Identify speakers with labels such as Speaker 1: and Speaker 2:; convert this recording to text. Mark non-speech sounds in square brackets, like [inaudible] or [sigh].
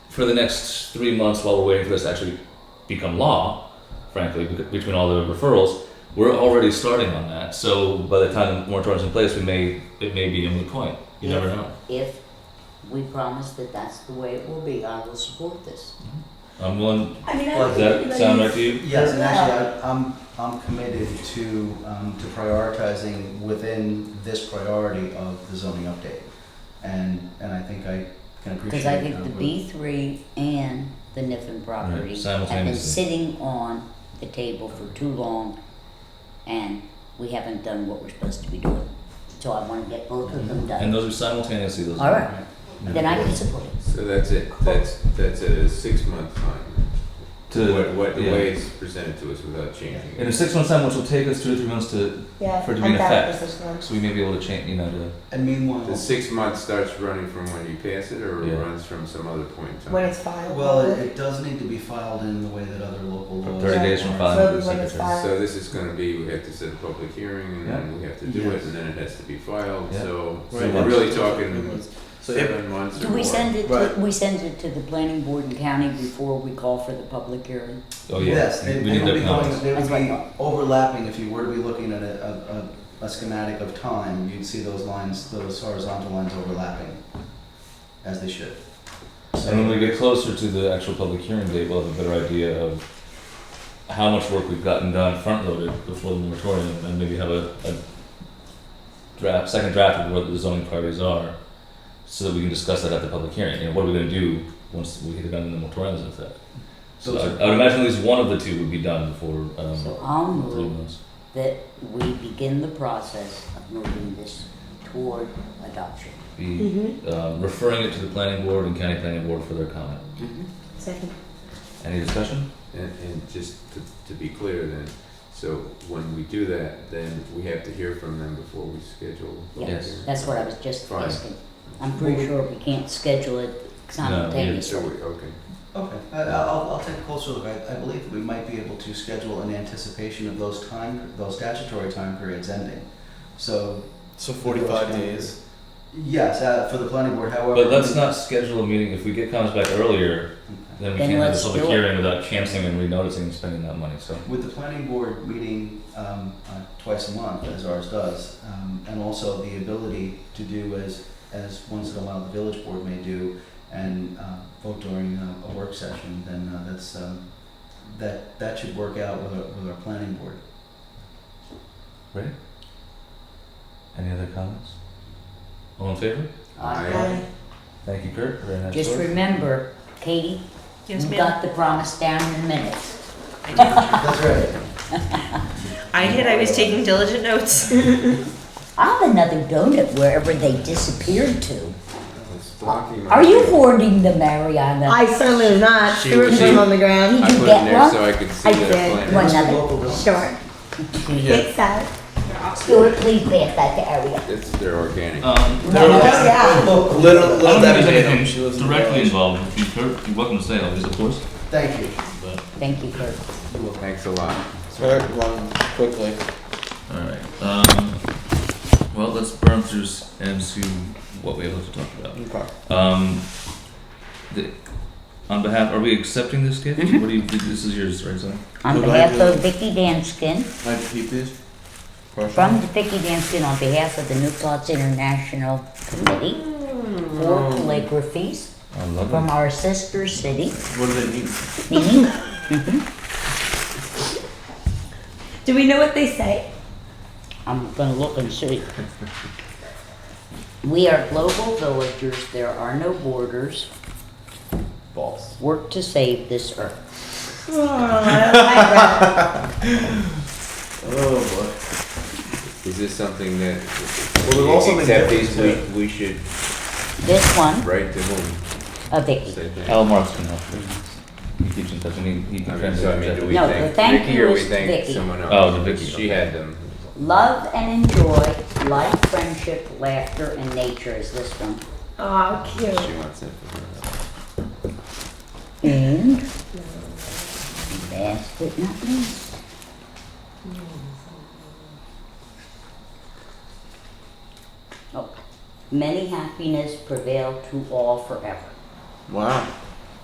Speaker 1: for the next three months while we're waiting for this to actually become law, frankly, bec- between all the referrals, we're already starting on that. So by the time the moratorium's in place, we may, it may be a moot point. You never
Speaker 2: If-
Speaker 1: know.
Speaker 2: If we promise that that's the way it will be, I will support this.
Speaker 1: I'm willing,
Speaker 3: I mean, I
Speaker 1: does
Speaker 3: don't think
Speaker 1: that sound right
Speaker 3: anybody's.
Speaker 1: to you?
Speaker 4: Yes, and actually, I, I'm, I'm committed to, um, to prioritizing within this priority of the zoning update. And, and I think I can appreciate.
Speaker 2: Cause I think
Speaker 4: uh,
Speaker 2: the
Speaker 4: what-
Speaker 2: B three and the Niffen property have been
Speaker 1: simultaneously.
Speaker 2: sitting on the table for too long and we haven't done what we're supposed to be doing. So I wanna get both of them
Speaker 1: And
Speaker 2: done.
Speaker 1: those are simultaneously, those
Speaker 2: All
Speaker 1: are.
Speaker 2: right, then I can support it.
Speaker 5: So that's it, that's, that's a six month time, what, what, the
Speaker 1: yeah.
Speaker 5: way it's presented to us without changing
Speaker 1: In
Speaker 5: it.
Speaker 1: a six month time, which will take us two to three months to,
Speaker 3: Yeah,
Speaker 1: for it to be
Speaker 3: I'm
Speaker 1: in
Speaker 3: bad at
Speaker 1: effect.
Speaker 3: this one.
Speaker 1: so we may be able to change, you know, to,
Speaker 4: And
Speaker 5: The
Speaker 4: meanwhile,
Speaker 5: six months starts running from when you pass it, or it
Speaker 1: Yeah.
Speaker 5: runs from some other point in time?
Speaker 3: When it's filed.
Speaker 4: well, it, it does need to be filed in the way that other local laws.
Speaker 1: thirty
Speaker 3: Yeah.
Speaker 1: days from
Speaker 4: are.
Speaker 1: filing
Speaker 3: So
Speaker 1: to the
Speaker 3: when it's
Speaker 1: secretary.
Speaker 3: filed-
Speaker 5: So this is gonna be, we have to set a public hearing, and then we have to do it,
Speaker 4: Yes.
Speaker 5: and then it has to be filed,
Speaker 1: Yeah.
Speaker 5: so, so
Speaker 1: Right.
Speaker 5: we're really talking
Speaker 4: So if-
Speaker 5: seven months or
Speaker 2: Do
Speaker 5: more.
Speaker 2: we send it to,
Speaker 4: Right.
Speaker 2: we send it to the planning board and county before we call for the public hearing?
Speaker 1: Oh, yeah.
Speaker 4: Yes, they,
Speaker 1: we
Speaker 4: they
Speaker 1: need
Speaker 4: would
Speaker 1: their
Speaker 4: be going,
Speaker 1: comments.
Speaker 4: they would
Speaker 2: That's what I
Speaker 4: be
Speaker 2: thought.
Speaker 4: overlapping, if you were to be looking at a, a, a, a schematic of time, you'd see those lines, those horizontal lines overlapping, as they should.
Speaker 1: And when
Speaker 4: So,
Speaker 1: we get closer to the actual public hearing date, we'll have a better idea of how much work we've gotten done front loaded before the moratorium and maybe have a, a draft, second draft of what the zoning priorities are so that we can discuss that at the public hearing. You know, what are we gonna do once we hit it on the moratorium's effect? So
Speaker 4: Those
Speaker 1: I,
Speaker 4: are-
Speaker 1: I would imagine at least one of the two would be done before,
Speaker 2: So
Speaker 1: um,
Speaker 2: I'll
Speaker 1: three
Speaker 2: move
Speaker 1: months.
Speaker 2: that we begin the process of moving this toward adoption.
Speaker 1: Be,
Speaker 3: Mm-hmm.
Speaker 4: hmm.
Speaker 1: uh, referring it to the planning board and county planning board for their comment.
Speaker 3: Second.
Speaker 1: Any discussion?
Speaker 5: And, and just to, to be clear then, so when we do that, then we have to hear from them before we schedule. the
Speaker 1: Yes.
Speaker 5: hearing?
Speaker 2: That's what I was just
Speaker 5: Fine.
Speaker 2: asking. I'm pretty sure we can't schedule it
Speaker 5: So
Speaker 2: simultaneously.
Speaker 5: we, okay.
Speaker 4: okay, I, I'll, I'll take a closer look, I, I believe we might be able to schedule in anticipation of those time, those statutory time periods ending, so. So forty-five days? Yes, uh, for the planning board, however.
Speaker 1: But let's not schedule a meeting, if we get comments back earlier,
Speaker 4: Okay.
Speaker 1: Then we
Speaker 2: Then
Speaker 1: can't have a
Speaker 2: let's
Speaker 1: public
Speaker 2: do it.
Speaker 1: hearing without canceling and renoticing and spending that money, so.
Speaker 4: With the planning board meeting um, uh, twice a month, as ours does, um, and also the ability to do as, as once in a while the village board may do, and uh, vote during uh, a, a work session, then uh, that's, um, that, that should work out with our, with our planning board.
Speaker 1: Any other comments? All in favor?
Speaker 2: Alright.
Speaker 3: Aye.
Speaker 1: Thank you, Kurt, very nice
Speaker 2: Just
Speaker 1: work.
Speaker 2: remember, Katie,
Speaker 6: Yes,
Speaker 2: you
Speaker 6: ma'am.
Speaker 2: got the promise down in minutes.
Speaker 4: That's right.
Speaker 6: I did. I was taking diligent notes.
Speaker 2: I'll have another donut wherever they disappeared to.
Speaker 5: It's blocking my
Speaker 2: Are you
Speaker 5: view.
Speaker 2: hoarding the Mariana?
Speaker 3: I certainly am not.
Speaker 5: She-
Speaker 3: Threw
Speaker 5: she-
Speaker 3: them on the ground.
Speaker 5: I
Speaker 2: Did you
Speaker 5: put it
Speaker 2: get
Speaker 5: in there
Speaker 2: one?
Speaker 5: so I could see
Speaker 3: I
Speaker 5: that
Speaker 3: did.
Speaker 2: One
Speaker 5: plan.
Speaker 4: That's the
Speaker 2: other.
Speaker 4: local village.
Speaker 1: [laughs]
Speaker 3: Sure. It's that.
Speaker 2: Stuart, please pass that to Ariel.
Speaker 5: It's they're organic.
Speaker 1: Um,
Speaker 2: No, that's
Speaker 3: Yeah.
Speaker 1: I
Speaker 4: Little,
Speaker 1: don't think there's anything directly involved, with you, Kurt, you're welcome to say, obviously, of course,
Speaker 4: Thank you.
Speaker 1: but,
Speaker 2: Thank you, Kurt.
Speaker 5: Thanks a lot.
Speaker 1: alright, um, well, let's burn through s- and see what we have left to talk about. Um, the, on behalf, are we accepting this gift?
Speaker 2: Mm-hmm.
Speaker 1: What do you, this is yours, right, Zoe?
Speaker 2: On
Speaker 7: Could I
Speaker 2: behalf
Speaker 7: do-
Speaker 2: of Vicky Danskin,
Speaker 7: Can I keep these?
Speaker 2: from Vicky Danskin, on behalf of the New Thoughts International Committee for Calligraphies
Speaker 1: I love
Speaker 2: from our sister city,
Speaker 7: What do they need?
Speaker 2: meaning
Speaker 3: Do we know what they say?
Speaker 2: I'm gonna look and see. We are global villagers, there are no borders. False. Work to save this earth.
Speaker 3: Oh, I
Speaker 1: [laughs]
Speaker 7: Oh
Speaker 5: Is this something that
Speaker 7: Well, there's also been
Speaker 5: except these we,
Speaker 7: different-
Speaker 5: we should
Speaker 2: This one,
Speaker 5: write to whom?
Speaker 2: a Vicky.
Speaker 5: Say thank-
Speaker 1: Al Marks can help you. He keeps in touch, I mean, he
Speaker 5: I
Speaker 1: can
Speaker 5: mean, so I mean,
Speaker 1: translate
Speaker 5: do
Speaker 1: that.
Speaker 5: we
Speaker 2: No, the
Speaker 5: thank
Speaker 2: thank
Speaker 5: Vicky
Speaker 2: you
Speaker 5: or we
Speaker 2: is
Speaker 5: thank
Speaker 2: Vicky.
Speaker 5: someone else?
Speaker 1: Oh, the Vicky,
Speaker 5: She
Speaker 1: okay.
Speaker 5: had them.
Speaker 2: Love and enjoy life, friendship, laughter, and nature is this one.
Speaker 3: bet. Oh, cute.
Speaker 5: She wants it for her.
Speaker 2: And last but not least. Oh, many happiness prevail to all forever.
Speaker 7: boy. Wow.